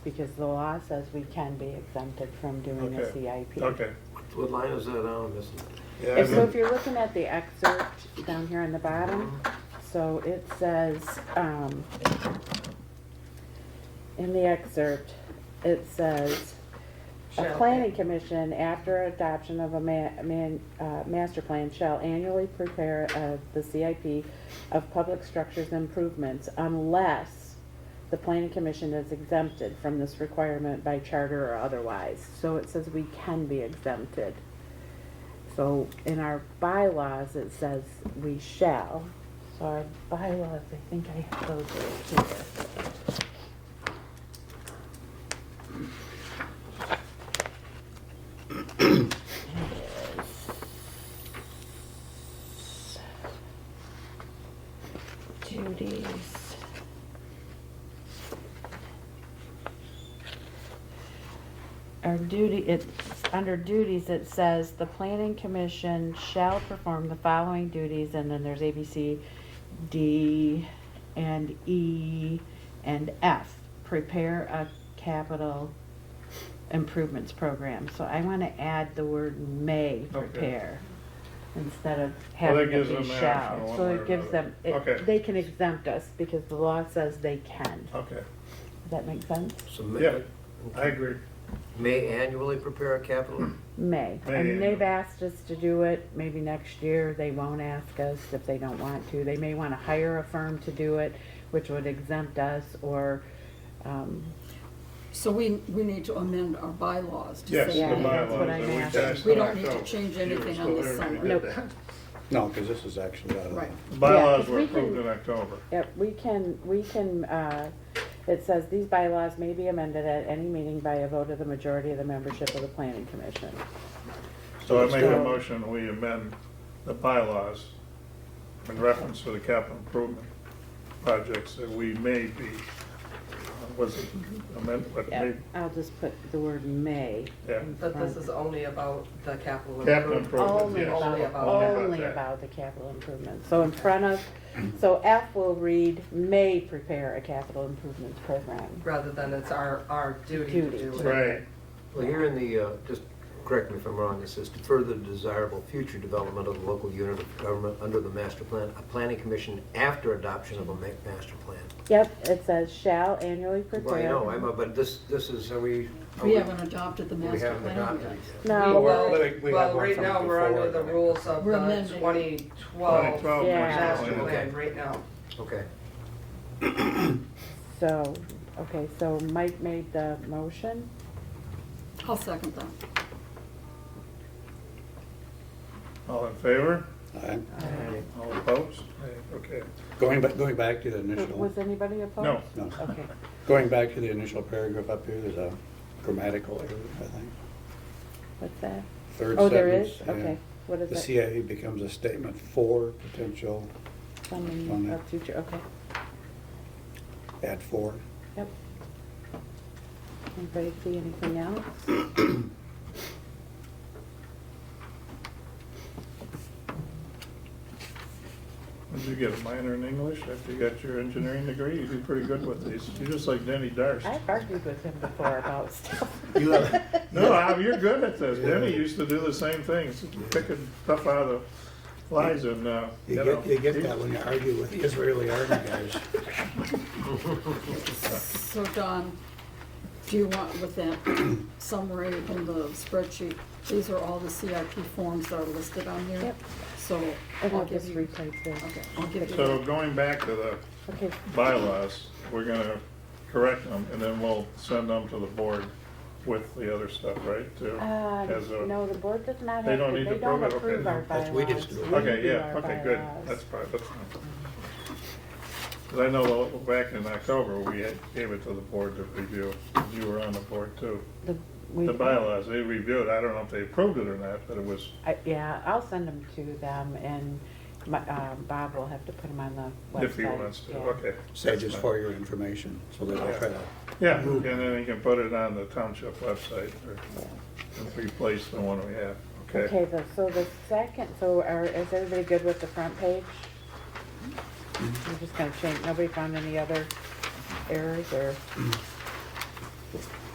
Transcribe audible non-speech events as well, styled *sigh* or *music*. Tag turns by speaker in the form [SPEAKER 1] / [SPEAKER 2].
[SPEAKER 1] Because the law says we can be exempted from doing a
[SPEAKER 2] Okay.
[SPEAKER 1] CIP.
[SPEAKER 2] Okay.
[SPEAKER 3] What line is that on, Missy?
[SPEAKER 2] Yeah,
[SPEAKER 1] If- So
[SPEAKER 2] I
[SPEAKER 1] if you're looking at the excerpt down here on the bottom, so it says, um, in the excerpt, it says, a
[SPEAKER 4] Shall
[SPEAKER 1] planning commission, after adoption of a ma- man, uh, master plan, shall annually prepare, uh, the CIP of public structures improvements unless the planning commission is exempted from this requirement by charter or otherwise. So it says we can be exempted. So in our bylaws, it says we shall. So our bylaws, I think I have those right here. Duties. Our duty, it, under duties, it says the planning commission shall perform the following duties, and then there's A, B, C, D, and E, and F. Prepare a capital improvements program, so I wanna add the word may prepare instead of
[SPEAKER 2] Well, that
[SPEAKER 1] having it
[SPEAKER 2] gives
[SPEAKER 1] be
[SPEAKER 2] them an option
[SPEAKER 1] shall.
[SPEAKER 2] one
[SPEAKER 1] So
[SPEAKER 2] way or
[SPEAKER 1] it gives
[SPEAKER 2] another.
[SPEAKER 1] them, it,
[SPEAKER 2] Okay.
[SPEAKER 1] they can exempt us because the law says they can.
[SPEAKER 2] Okay,
[SPEAKER 1] Does that make sense?
[SPEAKER 3] So may-
[SPEAKER 2] Yeah. I agree.
[SPEAKER 3] May annually prepare a capital?
[SPEAKER 1] May.
[SPEAKER 2] May,
[SPEAKER 1] I mean,
[SPEAKER 2] yeah.
[SPEAKER 1] they've asked us to do it, maybe next year, they won't ask us if they don't want to. They may wanna hire a firm to do it, which would exempt us, or, um,
[SPEAKER 4] So we, we need to amend our bylaws to
[SPEAKER 2] Yes,
[SPEAKER 4] say.
[SPEAKER 2] the
[SPEAKER 1] Yeah, that's
[SPEAKER 2] bylaws
[SPEAKER 1] what I'm
[SPEAKER 2] that we
[SPEAKER 1] asking.
[SPEAKER 2] passed
[SPEAKER 4] We
[SPEAKER 2] in
[SPEAKER 4] don't need to
[SPEAKER 2] October.
[SPEAKER 4] change
[SPEAKER 2] You were
[SPEAKER 4] anything
[SPEAKER 2] still
[SPEAKER 4] on this
[SPEAKER 2] there when we
[SPEAKER 4] summer.
[SPEAKER 2] did
[SPEAKER 1] Nope.
[SPEAKER 2] that.
[SPEAKER 5] No, because this is actually out of
[SPEAKER 4] Right.
[SPEAKER 5] the,
[SPEAKER 2] The Bylaws
[SPEAKER 1] 'cause
[SPEAKER 2] were
[SPEAKER 1] we can-
[SPEAKER 2] approved in October.
[SPEAKER 1] yep, we can, we can, uh, it says these bylaws may be amended at any meeting by a vote of the majority of the membership of the planning commission.
[SPEAKER 2] So I
[SPEAKER 1] it's
[SPEAKER 2] make a
[SPEAKER 1] still-
[SPEAKER 2] motion, we amend the bylaws in reference to the capital improvement projects that we may be, uh, was it amended, but
[SPEAKER 1] Yeah,
[SPEAKER 2] may,
[SPEAKER 1] I'll just put the word may.
[SPEAKER 2] yeah,
[SPEAKER 1] in
[SPEAKER 6] But this
[SPEAKER 1] front.
[SPEAKER 6] is only about the capital
[SPEAKER 2] capital
[SPEAKER 6] improvement.
[SPEAKER 2] improvement,
[SPEAKER 1] Only
[SPEAKER 2] yes.
[SPEAKER 1] about,
[SPEAKER 6] Only about-
[SPEAKER 1] only
[SPEAKER 2] that.
[SPEAKER 1] about the capital improvement. So in front of, so F will read, may prepare a capital improvements program.
[SPEAKER 6] Rather than it's our, our duty to
[SPEAKER 1] Duty.
[SPEAKER 6] do it.
[SPEAKER 2] Right,
[SPEAKER 3] Well, here in the, uh, just correct me if I'm wrong, it says to further desirable future development of the local unit of government under the master plan, a planning commission after adoption of a ma- master plan.
[SPEAKER 1] Yep, it says shall annually
[SPEAKER 3] Well, I
[SPEAKER 1] prepare.
[SPEAKER 3] know, I'm, uh, but this, this is, are we? are
[SPEAKER 4] We haven't adopted the
[SPEAKER 3] We
[SPEAKER 4] master
[SPEAKER 3] haven't
[SPEAKER 4] plan
[SPEAKER 3] adopted
[SPEAKER 4] yet.
[SPEAKER 3] it yet.
[SPEAKER 1] No,
[SPEAKER 5] Well,
[SPEAKER 1] well,
[SPEAKER 5] I think we have
[SPEAKER 6] Well,
[SPEAKER 5] one
[SPEAKER 6] right
[SPEAKER 5] from
[SPEAKER 6] now, we're
[SPEAKER 5] before.
[SPEAKER 6] under the rules of
[SPEAKER 4] We're
[SPEAKER 6] the
[SPEAKER 4] amending.
[SPEAKER 6] twenty
[SPEAKER 2] twenty
[SPEAKER 6] twelve
[SPEAKER 2] twelve.
[SPEAKER 1] Yeah.
[SPEAKER 6] master
[SPEAKER 3] Okay.
[SPEAKER 6] plan right now.
[SPEAKER 3] Okay.
[SPEAKER 1] so, okay, so Mike made the motion.
[SPEAKER 4] I'll second that.
[SPEAKER 2] all in favor?
[SPEAKER 5] Uh,
[SPEAKER 2] All opposed? Okay,
[SPEAKER 5] Going back, going back to the
[SPEAKER 1] Was
[SPEAKER 5] initial,
[SPEAKER 1] anybody opposed?
[SPEAKER 2] no,
[SPEAKER 5] no,
[SPEAKER 1] Okay,
[SPEAKER 5] going back to the initial paragraph up here, there's a grammatical error, I think.
[SPEAKER 1] what's that?
[SPEAKER 5] Third
[SPEAKER 1] Oh, there
[SPEAKER 5] sentence,
[SPEAKER 1] is?
[SPEAKER 5] yeah.
[SPEAKER 1] Okay, what
[SPEAKER 5] The
[SPEAKER 1] is it?
[SPEAKER 5] CIA becomes a statement for potential, on
[SPEAKER 1] Funding
[SPEAKER 5] there.
[SPEAKER 1] of future, okay,
[SPEAKER 5] at for.
[SPEAKER 1] yep. Anybody see anything else?
[SPEAKER 3] *laughs*
[SPEAKER 2] did you get a minor in English after you got your engineering degree? You'd be pretty good with these, you're just like Denny Darst.
[SPEAKER 1] I've argued with him before about stuff. *laughs*
[SPEAKER 5] You have-
[SPEAKER 2] No, I- you're good at this. Denny used to do the same things, picking stuff out of the lies and, uh, you
[SPEAKER 5] You
[SPEAKER 2] know.
[SPEAKER 5] get, you get that when you argue with the Israeli army guys.
[SPEAKER 4] So Don, do you want with that *clears throat* summary in the spreadsheet, these are all the CIP forms that are listed on here?
[SPEAKER 1] Yep.
[SPEAKER 4] So
[SPEAKER 1] And
[SPEAKER 4] I'll
[SPEAKER 1] I'll
[SPEAKER 4] give
[SPEAKER 1] just
[SPEAKER 4] you,
[SPEAKER 1] replace this.
[SPEAKER 4] okay, I'll give you.
[SPEAKER 2] So going back to the
[SPEAKER 1] Okay,
[SPEAKER 2] bylaws, we're gonna correct them and then we'll send them to the board with the other stuff, right? To-
[SPEAKER 1] uh,
[SPEAKER 2] as a-
[SPEAKER 1] no, the board does not have to,
[SPEAKER 2] They
[SPEAKER 1] they
[SPEAKER 2] don't need to
[SPEAKER 1] don't
[SPEAKER 2] approve it, okay,
[SPEAKER 1] approve our bylaws.
[SPEAKER 3] that's- we just do it.
[SPEAKER 1] We
[SPEAKER 2] Okay,
[SPEAKER 1] do
[SPEAKER 2] yeah,
[SPEAKER 1] our
[SPEAKER 2] okay, good.
[SPEAKER 1] bylaws.
[SPEAKER 2] That's fine, that's fine. Cause I know the- back in October, we had, gave it to the board to review. You were on the board too.
[SPEAKER 1] The we-
[SPEAKER 2] The bylaws, they reviewed. I don't know if they approved it or not, but it was
[SPEAKER 1] I- Yeah, I'll send them to them and my, um, Bob will have to put them on the website.
[SPEAKER 2] if he wants to,
[SPEAKER 1] yeah.
[SPEAKER 2] okay.
[SPEAKER 5] So just for your information, so that I'll try to,
[SPEAKER 2] Yeah, and then you can put it on the township website or and replace the one we have, okay?
[SPEAKER 1] Okay, the- so the second, so are, is everybody good with the front page?
[SPEAKER 3] Mm-hmm.
[SPEAKER 1] We're just gonna change, nobody found any other errors or?